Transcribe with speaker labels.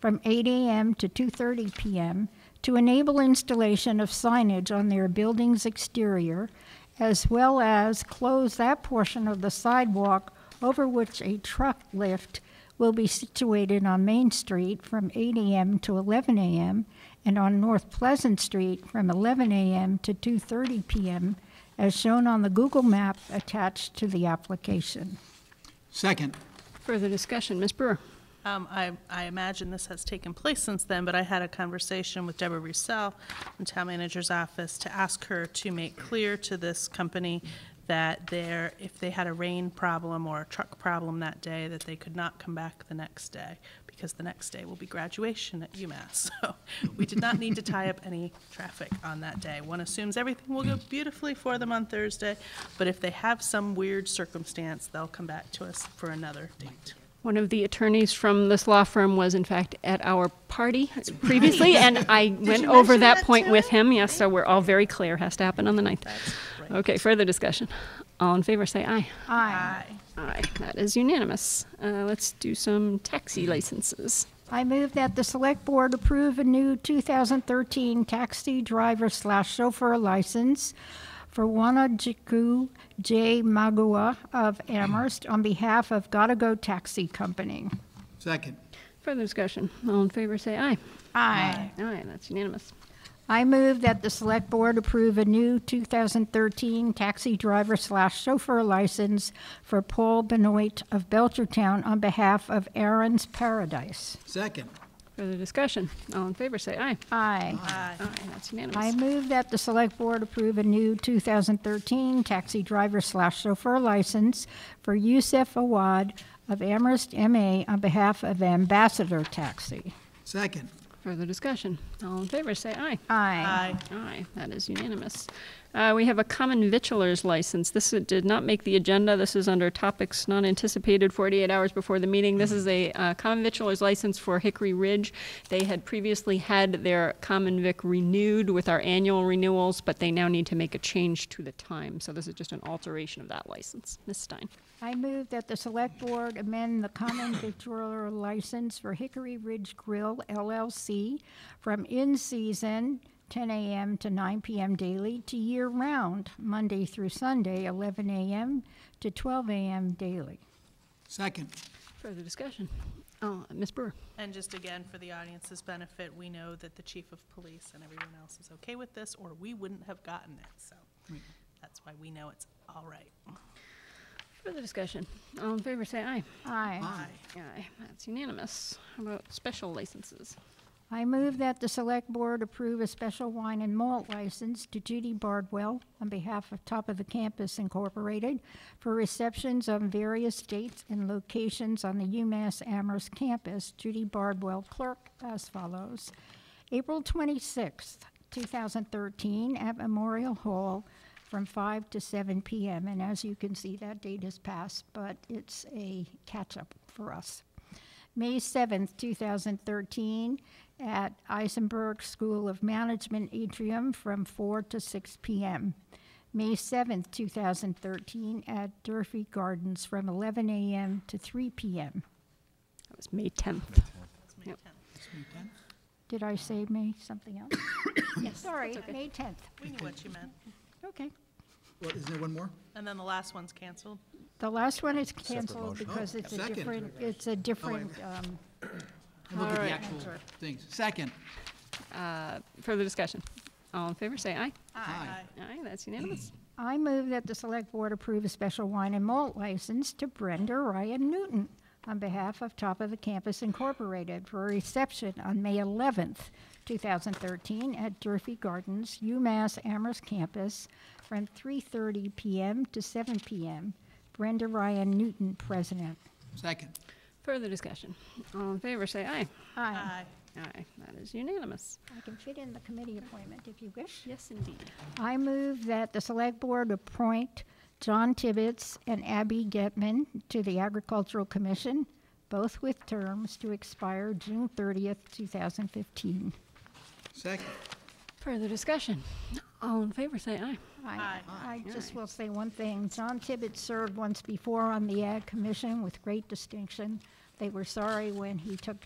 Speaker 1: from 8 a.m. to 2:30 p.m. to enable installation of signage on their building's exterior, as well as close that portion of the sidewalk over which a truck lift will be situated on Main Street from 8 a.m. to 11 a.m. and on North Pleasant Street from 11 a.m. to 2:30 p.m. as shown on the Google map attached to the application.
Speaker 2: Second.
Speaker 3: Further discussion, Ms. Brewer?
Speaker 4: Um, I, I imagine this has taken place since then, but I had a conversation with Deborah Russell from Town Manager's Office to ask her to make clear to this company that there, if they had a rain problem or a truck problem that day, that they could not come back the next day, because the next day will be graduation at UMass. So we did not need to tie up any traffic on that day. One assumes everything will go beautifully for them on Thursday, but if they have some weird circumstance, they'll come back to us for another date.
Speaker 3: One of the attorneys from this law firm was, in fact, at our party previously, and I went
Speaker 4: you
Speaker 3: over
Speaker 4: mention
Speaker 3: that
Speaker 4: that
Speaker 3: point
Speaker 4: to
Speaker 3: with
Speaker 4: him?
Speaker 3: him. Yes, so we're all very clear, has to happen on the 9th.
Speaker 4: That's right.
Speaker 3: Okay, further discussion. All in favor, say aye. Aye, that is unanimous. Uh, Let's do some taxi licenses.
Speaker 1: I move that the Select Board approve a new 2013 taxi driver slash chauffeur license for Wanajiku J. Magua of Amherst on behalf of Gotta Go Taxi Company.
Speaker 2: Second.
Speaker 3: Further discussion. All in favor, say aye.
Speaker 1: Aye.
Speaker 3: Aye, that's unanimous.
Speaker 1: I move that the Select Board approve a new 2013 taxi driver slash chauffeur license for Paul Benoit of Belchertown on behalf of Aaron's Paradise.
Speaker 2: Second.
Speaker 3: Further discussion. All in favor, say aye.
Speaker 1: Aye.
Speaker 4: Aye.
Speaker 3: Aye, that's
Speaker 1: I
Speaker 3: unanimous.
Speaker 1: move that the Select Board approve a new 2013 taxi driver slash chauffeur license for Yusef Awad of Amherst, MA, on behalf of Ambassador Taxi.
Speaker 2: Second.
Speaker 3: Further discussion. All in favor, say aye.
Speaker 1: Aye.
Speaker 4: Aye.
Speaker 3: Aye, that is unanimous. Uh, We have a common vitulers license. This did not make the agenda. This is under topics not anticipated 48 hours before the meeting. This is a uh, common vitulers license for Hickory Ridge. They had previously had their common vic renewed with our annual renewals, but they now need to make a change to the time. So this is just an alteration of that license. Ms. Stein.
Speaker 1: I move that the Select Board amend the common victualler license for Hickory Ridge Grill LLC from in-season 10 a.m. to 9 p.m. daily to year-round, Monday through Sunday, 11 a.m. to 12 a.m. daily.
Speaker 2: Second.
Speaker 3: Further discussion. Oh, Ms. Brewer.
Speaker 4: And just again, for the audience's benefit, we know that the chief of police and everyone else is okay with this, or we wouldn't have gotten it, so that's why we know it's all right.
Speaker 3: Further discussion. All in favor, say aye.
Speaker 1: Aye.
Speaker 2: Aye.
Speaker 3: Aye, that's unanimous. How about special licenses?
Speaker 1: I move that the Select Board approve a special wine and malt license to Judy Bardwell on behalf of Top of the Campus Incorporated for receptions on various dates and locations on the UMass Amherst campus. Judy Bardwell, clerk, as follows. April 26th, 2013, at Memorial Hall from 5 to 7 p.m. And as you can see, that date has passed, but it's a catch-up for us. May 7th, 2013, at Eisenberg School of Management atrium from 4 to 6 p.m. May 7th, 2013, at Durfee Gardens from 11 a.m. to 3 p.m.
Speaker 3: That was May 10th.
Speaker 4: Let's make
Speaker 3: Yep.
Speaker 4: ten.
Speaker 1: Did I say May something else? Yes. Sorry, May 10th.
Speaker 4: We knew what you meant.
Speaker 1: Okay.
Speaker 2: What, is there one more?
Speaker 4: And then the last one's canceled.
Speaker 1: The last one is canceled
Speaker 5: motion.
Speaker 1: because it's a
Speaker 2: second.
Speaker 1: different, it's a different, um,
Speaker 2: I Look at the actual things. Second.
Speaker 3: Uh, Further discussion. All in favor, say aye.
Speaker 2: Aye.
Speaker 3: Aye, that's unanimous.
Speaker 1: I move that the Select Board approve a special wine and malt license to Brenda Ryan Newton on behalf of Top of the Campus Incorporated for a reception on May 11th, 2013 at Durfee Gardens, UMass Amherst Campus from 3:30 PM to 7 PM. Brenda Ryan Newton, President.
Speaker 2: Second.
Speaker 3: Further discussion. All in favor, say aye.
Speaker 1: Aye.
Speaker 4: Aye.
Speaker 3: Aye, that is unanimous.
Speaker 1: I can fit in the committee appointment if you wish.
Speaker 3: Yes, indeed.
Speaker 1: I move that the Select Board appoint John Tibbetts and Abby Getman to the Agricultural Commission, both with terms to expire June 30th, 2015.
Speaker 2: Second.
Speaker 3: Further discussion. All in favor, say aye.
Speaker 1: I I just will say one thing. John Tibbetts served once before on the Ag Commission with great distinction. They were sorry when he took